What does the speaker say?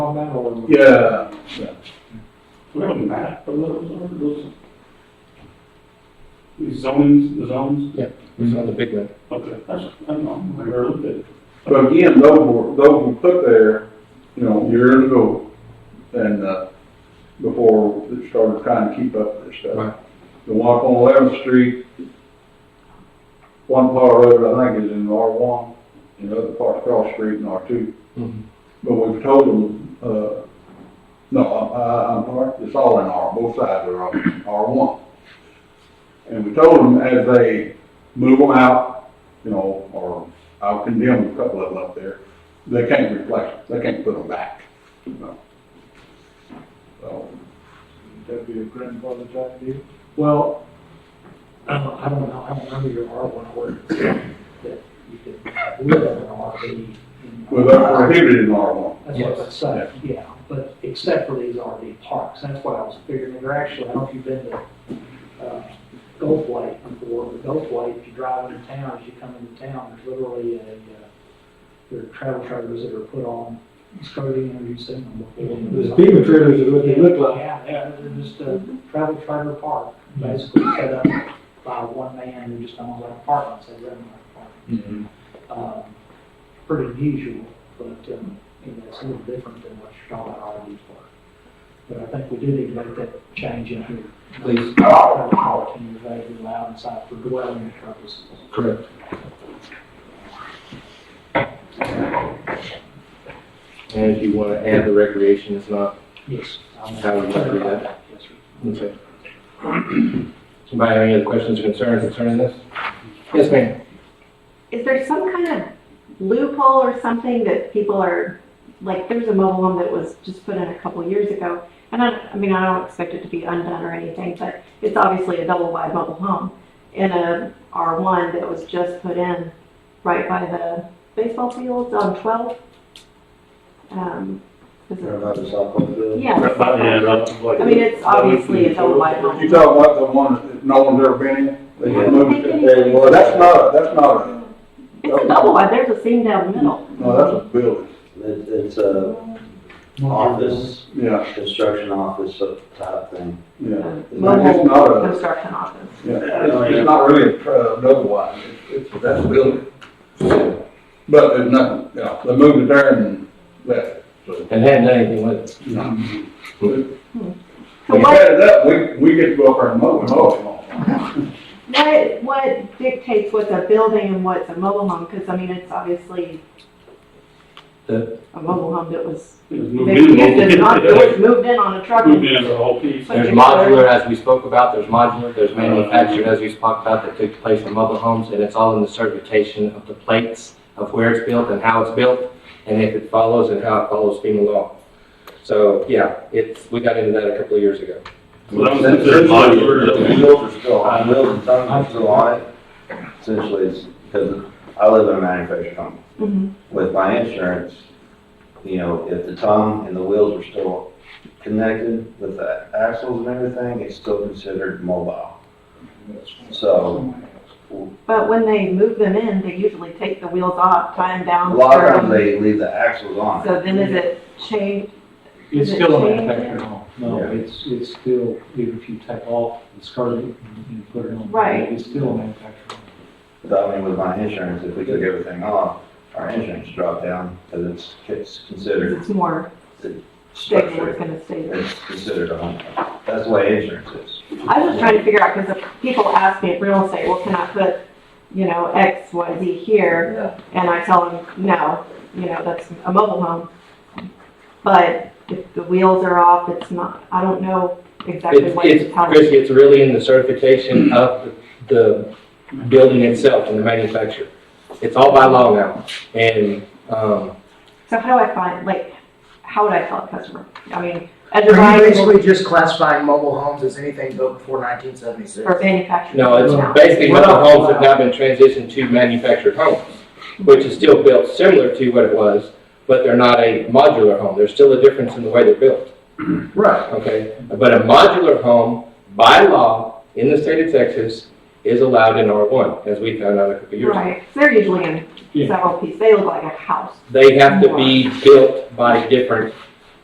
that or? Yeah. Do we have a map of those, or those? These zonings, the zones? It's on the big map. Okay, that's, I don't know, I never looked at it. But again, those were, those were put there, you know, years ago, and, uh, before it started trying to keep up with this Right. stuff. The one up on Eleventh Street, one part of the road, I think, is in R one, and the other part across the street in R two. Mhm. But we've told them, uh, no, I, I'm sorry, it's all in R, both sides are R one. And we told them as they move them out, you know, or I'll condemn a couple of them up there, they can't replace, them. they can't put them back, you know. So, That'd be a grandfather type deal? Well, I don't, I don't know, I don't remember your R one order. That you could live in an RV. in- Well, they're prohibited in R one. That's what I'm saying, yeah, but except for these RV parks, that's why I was figuring, they're actually, I don't know if you've been to, uh, Gulf Lake before, but Gulf Lake, uh, if you drive into town, as you come into town, there's literally a, uh, there are travel trailers that are put on, it's coding, and you've seen them before. The FEMA trailers is what they look like. Yeah, yeah, they're just a travel trailer park, basically set up by one man who just owns like apartments, they rent them like Mm-hmm, apartments. Um, Pretty unusual, but, um, you know, it's a little different than what you're talking about RV park. But I think we do need to make that change in here. Please. Travel park can be vaguely allowed inside for dwelling purposes. Correct. And if you want to add the recreation, it's not, Yes. I'll make- How would you agree with Yes, sir. okay. Anybody have any other questions or concerns concerning this? Yes, ma'am. Is there some kind of loophole or something that people are, like, there's a mobile home that was just put in a couple years ago. And I, I mean, I don't expect it to be undone or anything, but it's obviously a double wide mobile home in a R1 that was just put in right by the baseball fields on 12. Um, is it- Yeah. I mean, it's obviously a double wide You home. talk about the one that no one's ever been in? They just moved it there. Well, that's not, a- that's not, a- It's a double wide, there's a seam down the middle. no, that's a building, It, it's a office, yeah, construction office sort of type thing. yeah. It's not Mobile a- construction office. Yeah, it's it's not really a tra- another one, it's, it's, that's a building. But there's nothing, you know, they moved it there and left it, so. And hadn't done anything with it. you know. So We what set it up, we, we get to go up there and mow it, mow it. What, what dictates what's a building and what's a mobile home? Because I mean, it's obviously The- a mobile home that was, It was they moved in. used it, not- it was moved in on a truck. Moved and- in the whole piece. There's modular, as we spoke about, there's modular, there's manufactured, as we spoke about, that took place in mobile homes, and it's all in the certification of the plates of where it's built and how it's built, and if it follows and how it follows FEMA law. So, yeah, it's, we got into that a couple of years ago. Well, that was considered modular, that was- Wheels are still on, wheels and tongues are still on it. Essentially, it's, because I live in a manufactured home. Mhm. With my insurance, you know, if the tongue and the wheels are still connected with the axles and everything, it's still considered mobile. So, But when they move them in, they usually take the wheels off, tie them a down. lot of stir times them. they leave the axles on. So then is it changed? It's Is it still a changed? manufactured home. No, it's, it's still, even if you take off the scarlet and you put it on. Right. It's still a manufactured home. But I mean, with my insurance, if we took everything off, our insurance dropped down because it's, it's considered It's more stable, it's structured. going to stay there. It's considered a home. That's the way insurance is. I was just trying to figure out, because if people ask me at real estate, well, can I put, you know, X, Y, Z here? And I tell them, no, you know, that's a mobile home. But if the wheels are off, it's not, I don't know exactly It's, what to it's, tell them. Chrissy, it's really in the certification of the the building itself and the manufacturer. It's all by law now, and, um, So how do I find, like, how would I tell a customer? I mean, as a Are you buyer basically just classifying mobile homes as anything built before nineteen seventy-six? or manufacturer? no, it's basically mobile homes have now been transitioned to manufactured homes, which is still built similar to what it was, but they're not a modular home. There's still a difference in the way they're built. Right. Okay, but a modular home, by law, in the state of Texas, is allowed in R1, as we found out a couple years ago. Right, so they're usually in Yeah. several pieces, they look like a house. They have to be built by different